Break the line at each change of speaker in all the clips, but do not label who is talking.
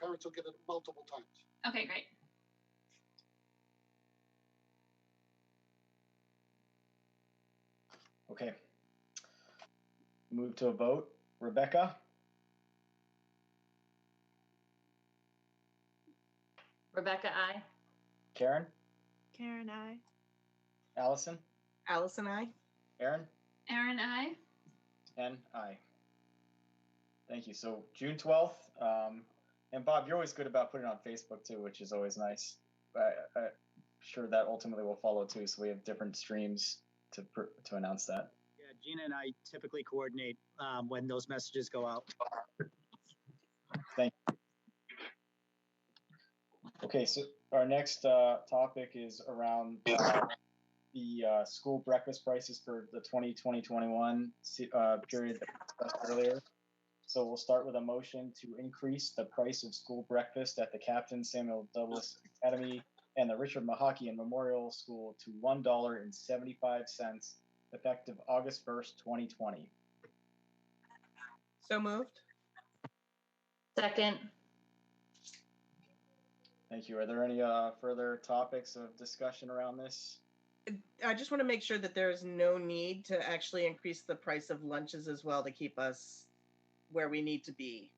parents will get it multiple times.
Okay, great.
Okay. Move to a vote. Rebecca,
Rebecca, I.
Karen,
Karen, I.
Allison,
Allison, I.
Aaron,
Aaron, I.
and I. Thank you. So June 12th. Um, and Bob, you're always good about putting it on Facebook too, which is always nice. I, I'm sure that ultimately will follow too. So we have different streams to, pr- to announce that.
Yeah, Gina and I typically coordinate um, when those messages go out.
Okay, so our next uh, topic is around uh, the uh, school breakfast prices for the 2020-21 se- uh, period that we discussed earlier. So we'll start with a motion to increase the price of school breakfast at the Captain Samuel Douglas Academy and the Richard Mahakian Memorial School to $1.75 effective August 1st, 2020.
So moved.
Second,
Thank you. Are there any uh, further topics of discussion around this?
I just want to make sure that there is no need to actually increase the price of lunches as well to keep us where we need to be.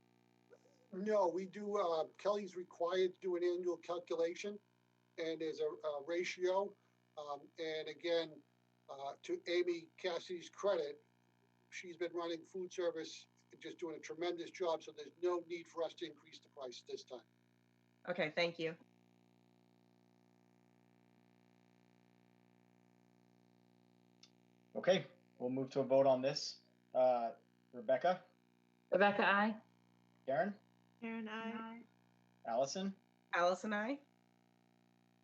No, we do, uh, Kelly's required to do an annual calculation and there's a, a ratio. Um, and again, uh, to Amy Cassidy's credit, she's been running food service, and just doing a tremendous job. So there's no need for us to increase the price this time.
Okay, thank you.
Okay, we'll move to a vote on this. Uh, Rebecca,
Rebecca, I.
Karen,
Karen, I.
Allison,
Allison, I.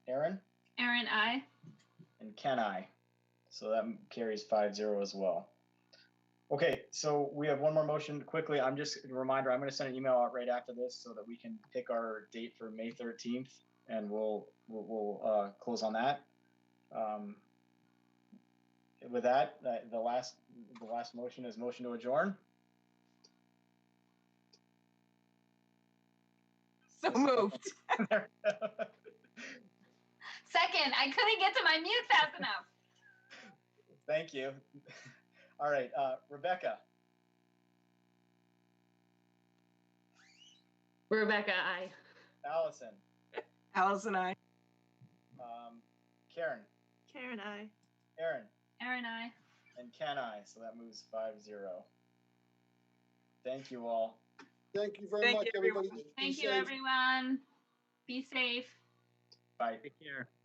Aaron,
Aaron, I.
and Ken I. So that carries 5 0 as well. Okay, so we have one more motion quickly. I'm just a reminder, I'm going to send an email out right after this so that we can pick our date for May 13th and we'll, we'll, we'll uh, close on that. Um, with that, uh, the last the last motion is motion to adjourn.
So moved.
Second, I couldn't get to my mute fast enough.
Thank you. All right, uh, Rebecca,
Rebecca, I.
Allison,
Allison, I.
um, Karen,
Karen, I.
Aaron,
Aaron, I.
and Ken I. So that moves 5 0. Thank you all.
Thank you very
Thank
much,
you, everyone.
everybody. Be
Thank you,
safe.
everyone. Be safe.
Bye.
Take care.